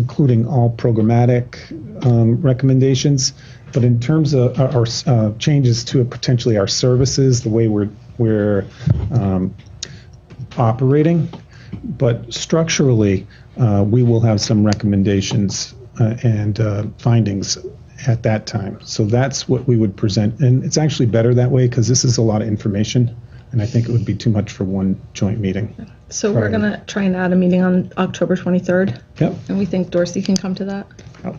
including all programmatic um, recommendations. But in terms of our, our uh, changes to potentially our services, the way we're we're um, operating, but structurally, uh, we will have some recommendations uh, and uh, findings at that time. So that's what we would present, and it's actually better that way because this is a lot of information, and I think it would be too much for one joint meeting. So we're Right. gonna try and add a meeting on October 23rd, Yep. and we think Dorsey can come to that.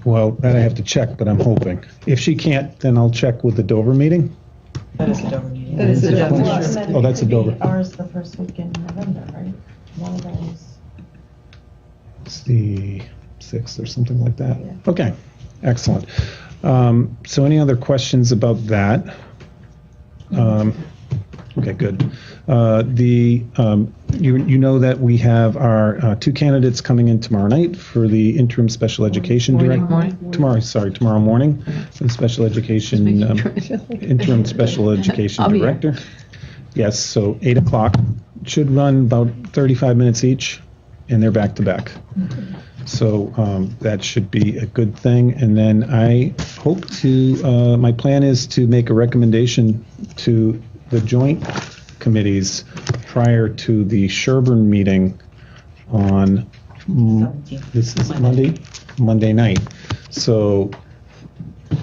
Well, that I have to check, but I'm hoping. If she can't, then I'll check with the Dover meeting. That is a Dover meeting. That is a Dover Well, meeting. then oh, that's it a could be Dover. Ours the first week in November, right? One of those. It's the sixth or something like that. Okay, excellent. Um, so, any other questions about that? Um, okay, good. Uh, the um, you you know that we have our uh, two candidates coming in tomorrow night for the interim special education Morning, director. morning. Tomorrow, sorry, tomorrow morning, for the special education um, interim special education I'll be here. director. Yes, so eight o'clock should run about 35 minutes each, and they're back to back. So um, that should be a good thing. And then I hope to, uh, my plan is to make a recommendation to the joint committees prior to the Sherburne meeting on, Seventeenth. this is Monday, Monday night. So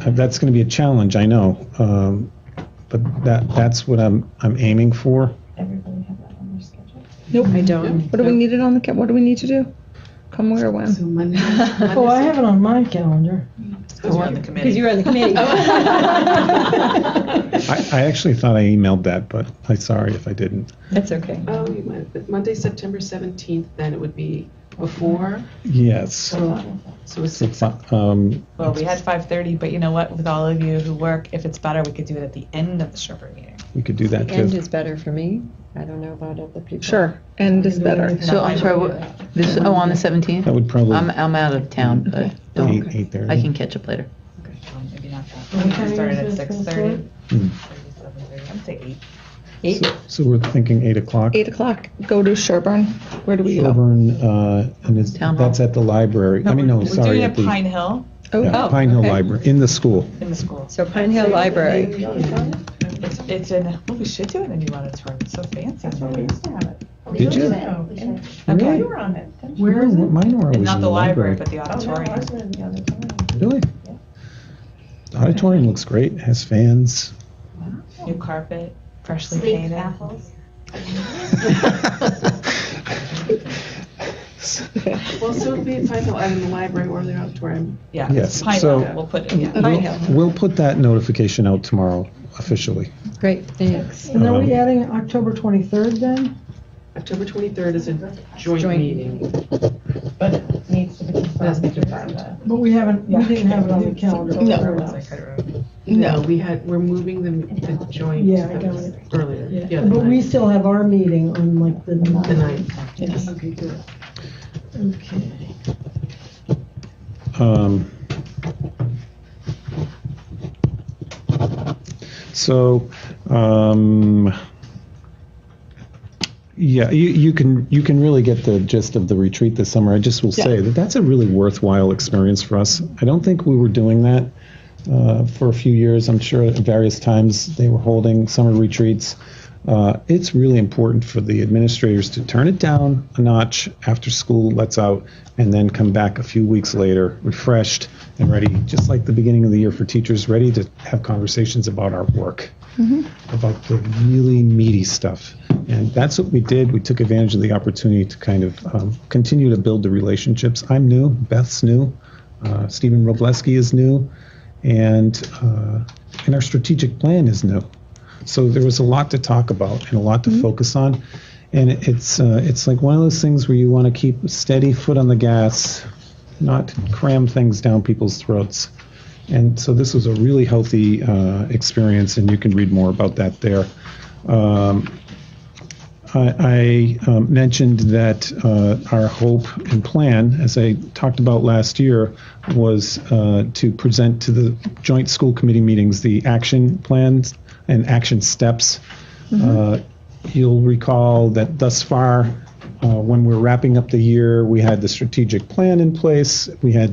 uh, that's going to be a challenge, I know. Um, But that, that's what I'm, I'm aiming for. Everybody have that on their schedule. Nope. I don't. What do we need it on the, ca- what do we need to do? Come where or So when? Monday. Oh, I have it on my calendar. Because we're on the committee. on the committee. I, I actually thought I emailed that, but I'm sorry if I didn't. That's okay. Oh, you might, but Monday, September 17th, then it would be before, Yes. so it's So, six. um, Well, we had 5:30, but you know what? With all of you who work, if it's better, we could do it at the end of the Sherburne meeting. We could do that End too. is better for me. I don't know about other people. Sure, end is better. So I'm sorry, what- this, oh, on the That 17th? would probably I'm, I'm out of town, but be don't- eight thirty. I can catch up later. Um, Maybe not that. We can start it at 6:30. Hmm. 7:30. I'd say 8. So, so we're thinking eight o'clock. Eight o'clock, go to Sherburne. Where do we go? Sherburne, uh, and is, Town hall. that's at the library. I mean, no, We're sorry, doing it at at the Pine Hill Oh, yeah, oh, Pine Hill okay. Library in the school. in the school. So Pine Hill Library. It's, it's in, well, we should do it in the auditorium. It's so fancy. That's where we used to have it. Did you? Okay. You were on it. didn't you? Where is it? Mine are always And in not the library, but the Oh, no, auditorium. ours were in the other time. Really? Yeah. The auditorium looks great. It Has fans. New carpet, freshly painted. Well, so it'd be at Pine Hill, either in the library or the auditorium. Yeah, it's Yes, Pine so- Hill. We'll put it, yeah. We'll, we'll put that notification out tomorrow officially. Great, thanks. And are we Um, adding October 23rd then? October 23rd is a joint Joint. meeting. But it needs to be confirmed with your agenda. But we haven't, we didn't have it on the calendar. I couldn't remember. No. We had, we're moving the, the joint Yeah, I that got was it. earlier. Yeah, the But we ninth. still have our meeting on like the The ninth. ninth. Okay, good. Okay. Um, so, um, yeah, you, you can you can really get the gist of the retreat this summer. I just will say that that's a really worthwhile experience for us. I don't think we were doing that uh, for a few years. I'm sure at various times they were holding summer retreats. Uh, it's really important for the administrators to turn it down a notch after school lets out and then come back a few weeks later refreshed and ready, just like the beginning of the year for teachers, ready to have conversations about our work, about the really meaty stuff. And that's what we did. We took advantage of the opportunity to kind of um, continue to build the relationships. I'm new, Beth's new, uh, Stephen Robleski is new, and, uh, and our strategic plan is new. So there was a lot to talk about and a lot to focus on. And it- it's uh, it's like one of those things where you want to keep a steady foot on the gas, not cram things down people's throats. And so this was a really healthy uh, experience, and you can read more about that there. Um, I, I um, mentioned that uh, our hope and plan, as I talked about last year, was uh, to present to the joint school committee meetings the action plans and action steps. Uh, you'll recall that thus far, uh, when we're wrapping up the year, we had the strategic plan in place. We had